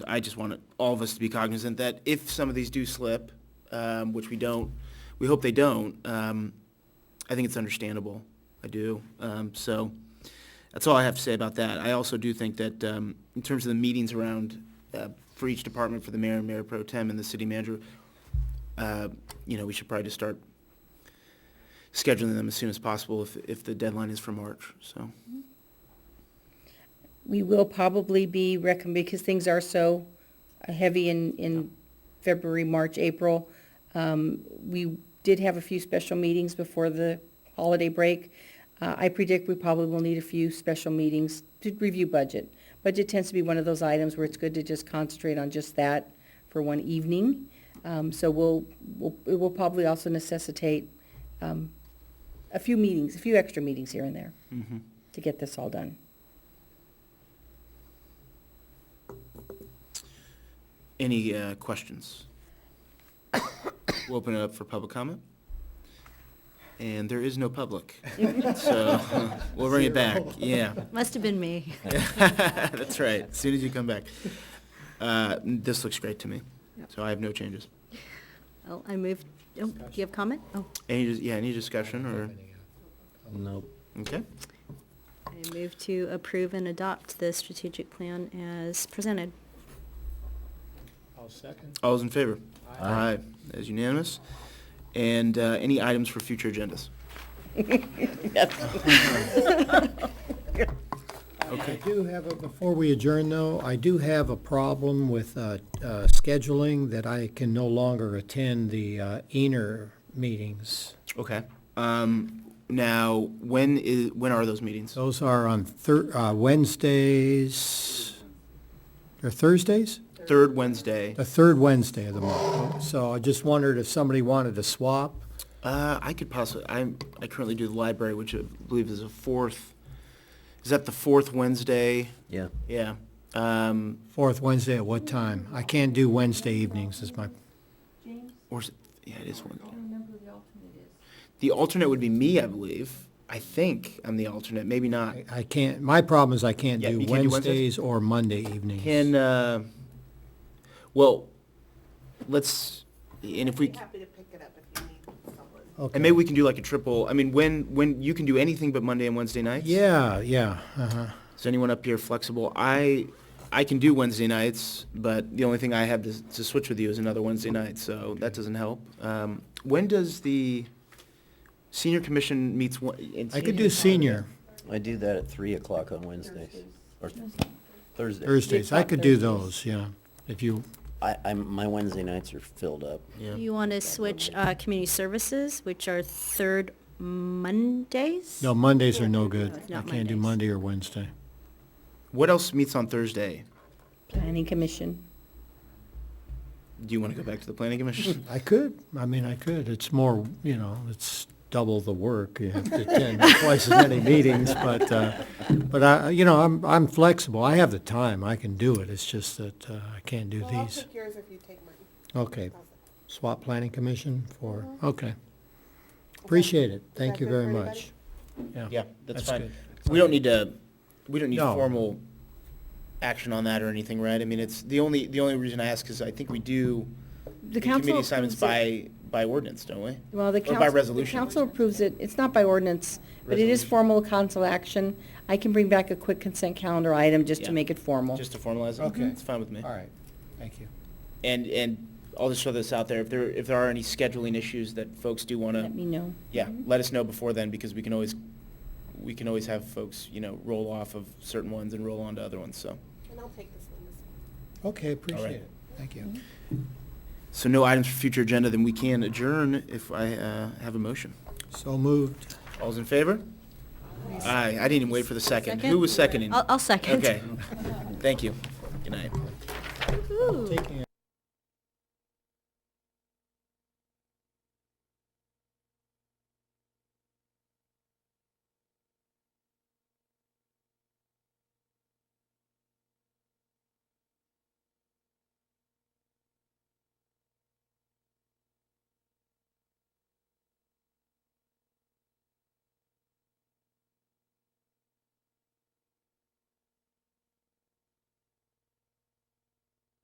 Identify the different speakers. Speaker 1: I just want all of us to be cognizant that if some of these do slip, um, which we don't, we hope they don't, um, I think it's understandable. I do. Um, so that's all I have to say about that. I also do think that um, in terms of the meetings around uh, for each department for the mayor and mayor pro tem and the city manager, uh, you know, we should probably just start scheduling them as soon as possible if, if the deadline is for March. So
Speaker 2: We will probably be recommend, because things are so heavy in, in February, March, April. Um, We did have a few special meetings before the holiday break. Uh, I predict we probably will need a few special meetings to review budget. Budget tends to be one of those items where it's good to just concentrate on just that for one evening. Um, So we'll, we'll, it will probably also necessitate um, a few meetings, a few extra meetings here and there
Speaker 1: mm-hmm.
Speaker 2: to get this all done.
Speaker 1: any uh, questions? We'll open it up for public comment. And there is no public. So uh, we'll bring it back. Yeah.
Speaker 3: Must have been me.
Speaker 1: That's right, as soon as you come back. Uh, This looks great to me,
Speaker 3: Yep.
Speaker 1: so I have no changes.
Speaker 3: Oh, I moved, oh, do you have comment? Oh,
Speaker 1: Any, dis- yeah, any discussion or,
Speaker 4: Nope.
Speaker 1: okay?
Speaker 3: I move to approve and adopt the strategic plan as presented.
Speaker 5: I'll second.
Speaker 1: All those in favor?
Speaker 4: Aye.
Speaker 1: That is unanimous. And uh, any items for future agendas?
Speaker 5: I do have, a before we adjourn though, I do have a problem with uh, uh, scheduling that I can no longer attend the uh, Ener meetings.
Speaker 1: Okay. Um, Now, when is, when are those meetings?
Speaker 5: Those are on Thur, uh, Wednesdays, or Thursdays?
Speaker 1: Third Wednesday.
Speaker 5: The third Wednesday of the month. So I just wondered if somebody wanted to swap.
Speaker 1: Uh, I could possibly, I'm, I currently do the library, which I believe is a fourth, is that the fourth Wednesday?
Speaker 4: Yeah.
Speaker 1: Yeah. Um,
Speaker 5: Fourth Wednesday at what time? I can't do Wednesday evenings is my,
Speaker 1: Or is it, yeah, it is one. I don't remember the alternate is. The alternate would be me, I believe. I think I'm the alternate, maybe not.
Speaker 5: I- I can't, my problem is I can't
Speaker 1: Yeah,
Speaker 5: do
Speaker 1: you can't do Wednesdays?
Speaker 5: Wednesdays or Monday evenings.
Speaker 1: Can, uh, well, let's, and if we,
Speaker 6: Happy to pick it up if you need someone.
Speaker 5: Okay.
Speaker 1: and maybe we can do like a triple, I mean, when, when, you can do anything but Monday and Wednesday nights?
Speaker 5: Yeah, yeah, uh-huh.
Speaker 1: Is anyone up here flexible? I, I can do Wednesday nights, but the only thing I have to, to switch with you is another Wednesday night, so that doesn't help. Um, when does the senior commission meets one? and
Speaker 5: I could do senior
Speaker 4: I do that at three o'clock on Wednesdays, or Thursday.
Speaker 5: Thursdays. I could do those, yeah, if you,
Speaker 4: I, I'm, my Wednesday nights are filled up.
Speaker 1: Yeah.
Speaker 3: You want to switch uh, community services, which are third Mondays?
Speaker 5: no, Mondays are no good.
Speaker 3: Not
Speaker 5: I can't do
Speaker 3: Mondays.
Speaker 5: Monday or Wednesday.
Speaker 1: What else meets on Thursday?
Speaker 2: Planning Commission.
Speaker 1: Do you want to go back to the planning commission?
Speaker 5: I could, I mean, I could. It's more, you know, it's double the work. You have to attend twice as many meetings, but, uh, but I, you know, I'm, I'm flexible. I have the time. I can do it. It's just that uh, I can't do
Speaker 6: Well, I'll
Speaker 5: these.
Speaker 6: take yours if you take mine.
Speaker 5: Okay,
Speaker 6: How's that?
Speaker 5: swap planning commission for, okay. Appreciate it. Thank
Speaker 6: Mm-hmm. that
Speaker 5: you
Speaker 6: good
Speaker 5: very
Speaker 6: for
Speaker 5: much.
Speaker 1: Yeah, that's
Speaker 5: That's
Speaker 1: fine.
Speaker 5: good.
Speaker 1: We don't need to, we don't need
Speaker 5: No.
Speaker 1: formal action on that or anything, right? I mean, it's, the only, the only reason I ask is I think we do the committee assignments by, by ordinance, don't we?
Speaker 2: Well, the
Speaker 1: Or by
Speaker 2: council.
Speaker 1: resolution.
Speaker 2: The council approves it, it's not by ordinance, but it is
Speaker 1: Resolution.
Speaker 2: formal council action. I can bring back a quick consent calendar item just
Speaker 1: Yeah.
Speaker 2: to make it formal.
Speaker 1: Just to formalize it?
Speaker 5: Okay.
Speaker 1: It's fine with me.
Speaker 5: All right, thank you.
Speaker 1: And, and I'll just throw this out there, if there, if there are any scheduling issues that folks do want
Speaker 2: Let
Speaker 1: to,
Speaker 2: me know.
Speaker 1: yeah, let us know before then, because we can always, we can always have folks, you know, roll off of certain ones and roll on to other ones, so.
Speaker 6: And I'll take this one, this one.
Speaker 5: Okay,
Speaker 1: right.
Speaker 5: appreciate it. Thank you.
Speaker 1: So no items for future agenda, then we can adjourn if I uh, have a motion.
Speaker 5: So moved.
Speaker 1: All's in favor? Aye, I didn't even wait for the second.
Speaker 3: Second?
Speaker 1: Who was seconding?
Speaker 3: I'll, I'll second.
Speaker 1: Okay, thank you. Good night.
Speaker 3: Ooh.
Speaker 5: Take